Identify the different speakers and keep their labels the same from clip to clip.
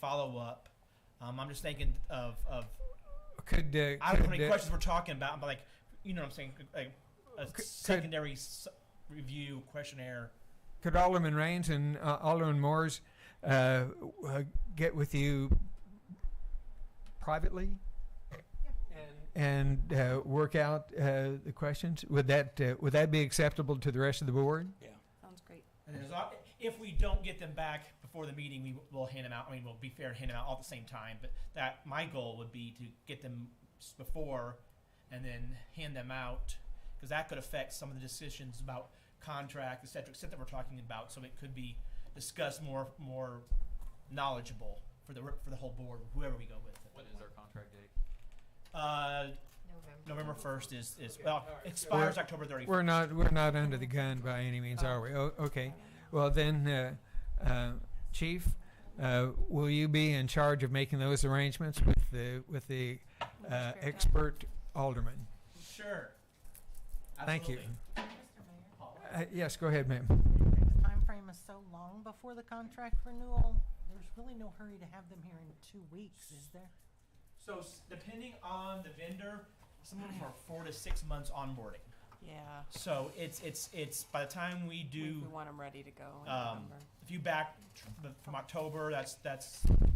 Speaker 1: follow up. Um, I'm just thinking of, of
Speaker 2: Could,
Speaker 1: I
Speaker 2: uh,
Speaker 1: don't know how
Speaker 2: could,
Speaker 1: many
Speaker 2: uh,
Speaker 1: questions we're talking about, but like, you know what I'm saying? Like a
Speaker 2: Could-
Speaker 1: secondary s- review questionnaire.
Speaker 2: could Alderman Raines and uh, Alderman Moores uh, w- uh, get with you privately and uh, work out uh, the questions? Would that uh, would that be acceptable to the rest of the board?
Speaker 3: Yeah.
Speaker 4: Sounds great.
Speaker 1: And there's, al- if we don't get them back before the meeting, we will hand them out. I mean, we'll be fair and hand them out all at the same time. But that my goal would be to get them s- before, and then hand them out because that could affect some of the decisions about contract, et cetera, et cetera, that we're talking about. So it could be discussed more more knowledgeable for the re- for the whole board, whoever we go with.
Speaker 5: When is our contract date?
Speaker 1: Uh,
Speaker 4: November.
Speaker 1: November first is is well expires
Speaker 2: We're-
Speaker 1: October 31st
Speaker 2: We're not we're not under the gun by any means, are we? O- okay. Well then, uh, uh, Chief, uh, will you be in charge of making those arrangements with the with the uh, expert alderman?
Speaker 1: Sure.
Speaker 2: Thank you.
Speaker 1: Absolutely.
Speaker 6: Mr. Mayor,
Speaker 2: Uh, yes, go ahead, ma'am.
Speaker 6: the timeframe is so long before the contract renewal, there's really no hurry to have them here in two weeks, is there?
Speaker 1: So s- depending on the vendor, some of them are four to six months onboarding.
Speaker 4: Yeah.
Speaker 1: So it's it's it's by the time we
Speaker 4: We we
Speaker 1: do,
Speaker 4: want them ready to go in
Speaker 1: um,
Speaker 4: November.
Speaker 1: if you back tr- the- from October, that's that's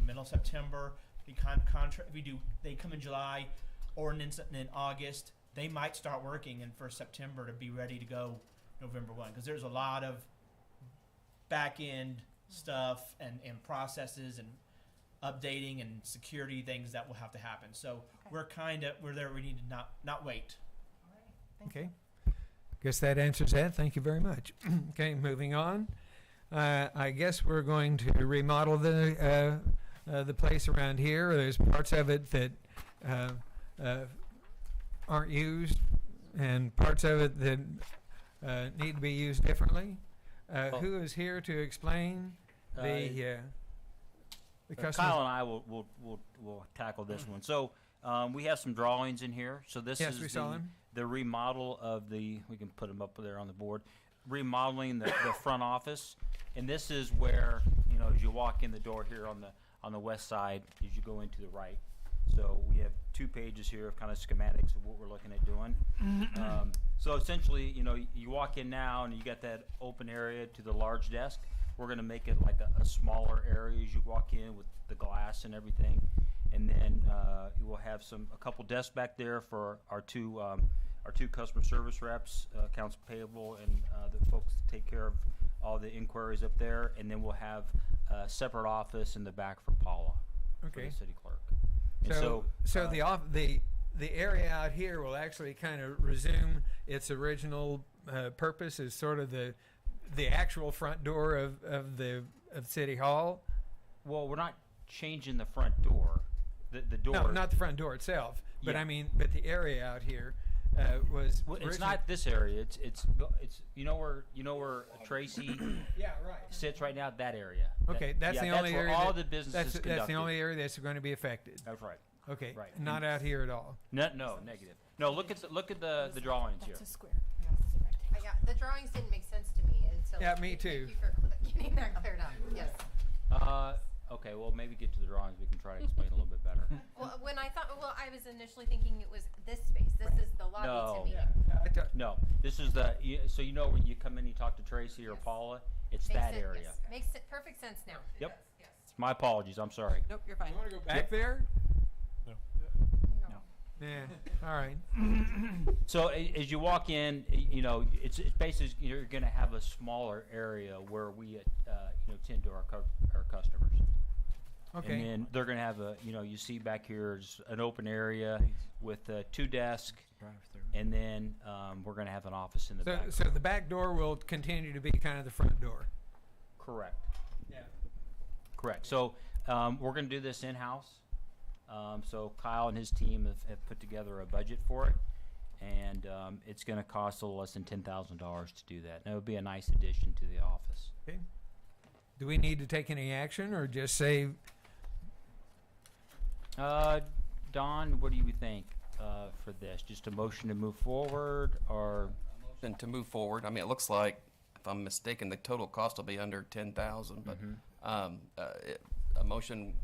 Speaker 1: middle of September. The con- contract we do they come in July, ordinance in in August. They might start working in first September to be ready to go November one because there's a lot of back end stuff and, and processes and updating and security things that will have to happen. So we're kind of we're there. We need to not not wait.
Speaker 6: All right, thank you.
Speaker 2: Okay. Guess that answers that. Thank you very much. okay, moving on. Uh, I guess we're going to remodel the uh, uh, the place around here. There's parts of it that uh, uh, aren't used, and parts of it that uh, need to be used differently. Uh,
Speaker 3: Well-
Speaker 2: who is here to explain the uh, the
Speaker 3: Uh,
Speaker 2: customer?
Speaker 3: Kyle and I will, will, will, will tackle this one. So, um, we have some drawings in here. So this
Speaker 2: Yes,
Speaker 3: is
Speaker 2: we saw
Speaker 3: the-
Speaker 2: him.
Speaker 3: The remodel of the, we can put them up there on the board, remodeling the, the front office. And this is where, you know, as you walk in the door here on the, on the west side, as you go into the right. So we have two pages here of kind of schematics of what we're looking at doing. Um, So essentially, you know, you walk in now and you got that open area to the large desk. We're gonna make it like a, a smaller area as you walk in with the glass and everything. And then, uh, you will have some, a couple desks back there for our two, um, our two customer service reps, uh, accounts payable and, uh, the folks that take care of all the inquiries up there. And then we'll have a separate office in the back for Paula, for
Speaker 2: Okay.
Speaker 3: the city clerk. And
Speaker 2: So, so
Speaker 3: uh,
Speaker 2: the off, the the area out here will actually kind of resume its original uh, purpose as sort of the the actual front door of, of the of City Hall.
Speaker 3: Well, we're not changing the front door. The, the door.
Speaker 2: No, not the front door itself, but
Speaker 3: Yeah.
Speaker 2: I mean, but the area out here uh, was.
Speaker 3: Well, it's
Speaker 2: originally-
Speaker 3: not this area. It's it's it's you know where you know where Tracy
Speaker 2: Yeah, right.
Speaker 3: sits right now. That area.
Speaker 2: Okay,
Speaker 3: That-
Speaker 2: that's
Speaker 3: yeah,
Speaker 2: the
Speaker 3: that's
Speaker 2: only
Speaker 3: where
Speaker 2: area.
Speaker 3: all
Speaker 2: that-
Speaker 3: the business
Speaker 2: that's,
Speaker 3: is conducted.
Speaker 2: that's the only area that's going to be affected.
Speaker 3: That's right.
Speaker 2: Okay,
Speaker 3: Right.
Speaker 2: Not out here at all.
Speaker 3: No, no, negative. No, look at the, look at the the drawings here.
Speaker 4: That's a square.
Speaker 7: Uh, Yeah, the drawings didn't make sense to me until.
Speaker 2: Yeah, me too.
Speaker 7: Thank you for cl- getting that cleared up, yes.
Speaker 3: Uh, okay, well maybe get to the drawings. We can try to explain a little bit better.
Speaker 7: Well, uh, when I thought, well, I was initially thinking it was this space, this is the lobby
Speaker 3: No.
Speaker 7: to me.
Speaker 2: I thought-
Speaker 3: No, this is the you- so you know when you come in, you talk to Tracy or
Speaker 7: Yes.
Speaker 3: Paula. It's
Speaker 7: Makes
Speaker 3: that
Speaker 7: sen-
Speaker 3: area.
Speaker 7: yes, Makes se- perfect sense now.
Speaker 3: Yep. My apologies. I'm sorry.
Speaker 4: Nope, you're fine.
Speaker 2: go back there?
Speaker 3: No.
Speaker 2: Yeah. All right.
Speaker 3: So a- as you walk in, y- you know, it's, it's basically, you're going to have a smaller area where we, uh, you know, tend to our, cu- our customers.
Speaker 2: Okay.
Speaker 3: And then they're going to have a, you know, you see back here is an open area with uh, two desks. And then um, we're going to have an office in the
Speaker 2: So,
Speaker 3: back.
Speaker 2: so the back door will continue to be kind of the front door.
Speaker 3: Correct.
Speaker 2: Yeah.
Speaker 3: Correct. So um, we're going to do this in-house. Um, so Kyle and his team have, have put together a budget for it, and um, it's going to cost a little less than ten thousand dollars to do that. And it would be a nice addition to the office.
Speaker 2: Okay. Do we need to take any action or just say,
Speaker 3: Uh, Don, what do you think uh, for this? Just a motion to move forward, or
Speaker 8: And to move forward, I mean, it looks like, if I'm mistaken, the total cost will be under ten thousand, but, um, uh, it- a motion